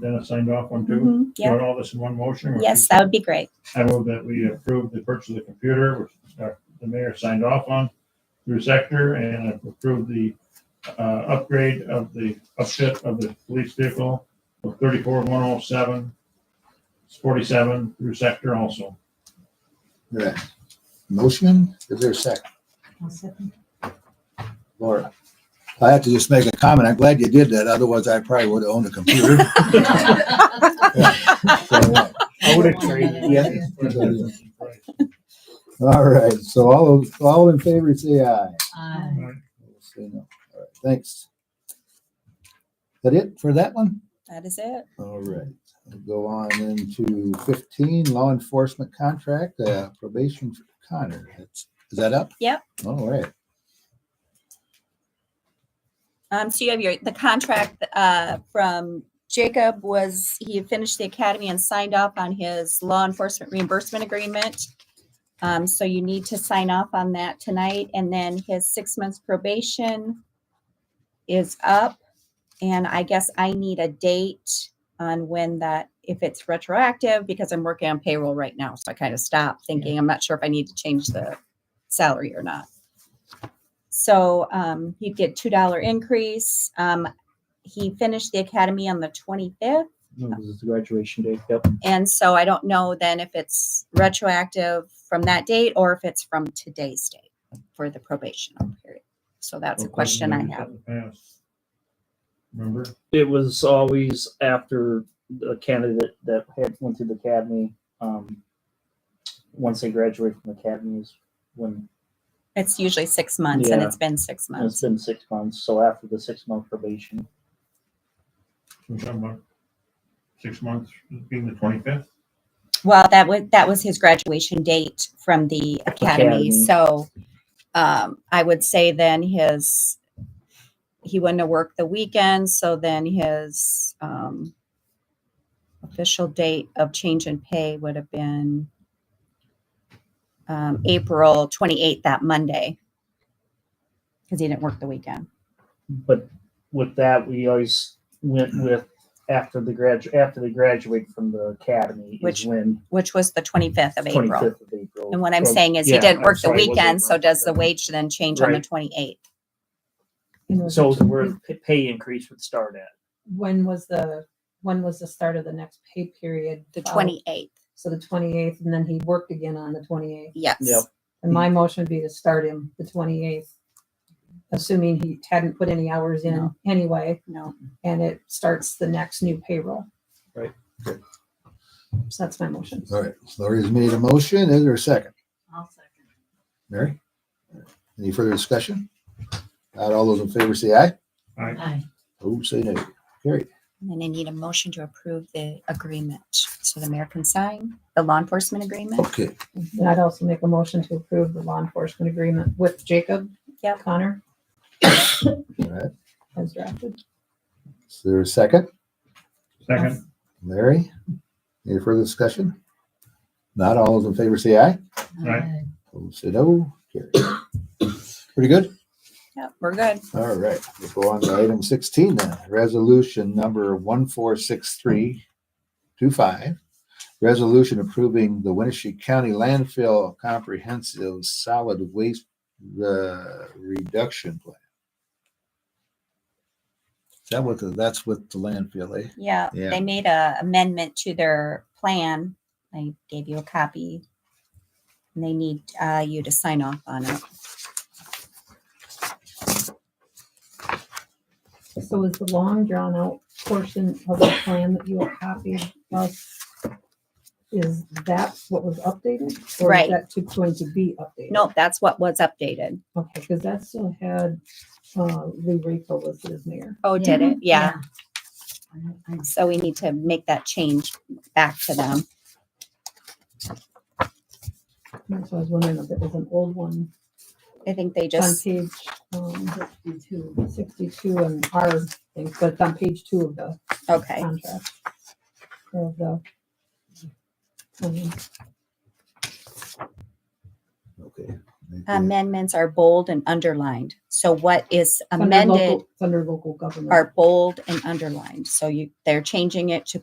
Dennis signed off on too? Mhm, You Yeah, want all this in one motion? or- yes, that would be great. I move that we approve the purchase of the computer, which uh, the mayor signed off on through sector and approve the uh, upgrade of the upfit of the police vehicle of thirty-four one oh seven, forty-seven through sector also. Right. Motion, is there a second? Laura, I have to just make a comment. I'm glad you did that. Otherwise, I probably would have owned a computer. So, uh, I would yeah. All right, so all, those- all in favor, say aye. Aye. Say no. All right, Thanks. That it for that one? That is it. All right, We'll go on into fifteen, law enforcement contract, uh, probation for Connor. That's- Is that up? Yep. All right, Um, so you have your, the contract, uh, from Jacob was, he had finished the academy and signed off on his law enforcement reimbursement agreement. Um, so you need to sign off on that tonight and then his six months probation is up. And I guess I need a date on when that, if it's retroactive, because I'm working on payroll right now. So I kind of stopped thinking, I'm not sure if I need to change the salary or not. So um, he'd get two dollar increase. Um, he finished the academy on the twenty fifth, This is the graduation date. Yep. and so I don't know then if it's retroactive from that date or if it's from today's date for the probational period. So that's a question I have. Remember? It was always after a candidate that had went through the academy. Um, once they graduate from the academy is when It's usually six months, and Yeah. it's been six and it's months. been six months. So after the six month probation, We're talking about Six months being the twenty-fifth? Well, that was that was his graduation date from the academy. Academy. So um, I would say then his he wouldn't have worked the weekend, so then his um, official date of change in pay would have been um, April twenty eighth, that Monday, because he didn't work the weekend. but with that we always went with after the gradu after they graduate from the academy Which is when Which was the twenty fifth of twenty April. fifth of April. And what I'm So- saying is he yeah, didn't I'm work the sorry, it was weekend, so April. does the wage then change on the Right. twenty eighth? So where the pay increase would start at. When was the, when was the start of the next pay period? The Uh, twenty eighth, So the twenty-eighth, and then he worked again on the twenty-eighth. yes. Yep. And my motion would be to start him the twenty-eighth, assuming he hadn't put any hours in No. anyway, No, and it starts the next new payroll. Right. So that's my motion. all right. Lori's made a motion. Is there a second? I'll second. Mary? Any further discussion? Not all those in favor, say aye. Aye. Oh, say no. and then I need a motion to approve the agreement. So the mayor can sign the law enforcement agreement. Okay, And I'd also make a motion to approve the law enforcement agreement with Jacob. Yep. Connor all right. as drafted. Is there a second? Second, Mary? Any further discussion? Not all those in favor, say aye. Aye. Oh, say no. Carry. Pretty good? Yep, we're good. All right, we'll go on to item sixteen then, resolution number one four six three two five. Resolution approving the Winnebago County landfill comprehensive solid waste uh, reduction plan. Is That what, the- that's what the landfill, eh? Yeah, Yeah. they made a amendment to their plan. I gave you a copy. And they need uh, you to sign off on it. So is the long drawn out portion of the plan that you have copied us? Is that what was updated? Or Right. is that to- going to be updated? Nope, that's what was updated. Okay, because that still had, uh, Lee Rico listed as mayor. Oh, did it? Yeah. So we need to make that change back to them. And So I was wondering if it was an old one I think they on just, page, um, sixty-two, sixty-two and our thing, but it's on page two of the okay. contract. Of the. um, Okay, Um, amendments are bold and underlined. So what is It's under local- amended It's under local government. are bold and underlined. So you, they're changing it to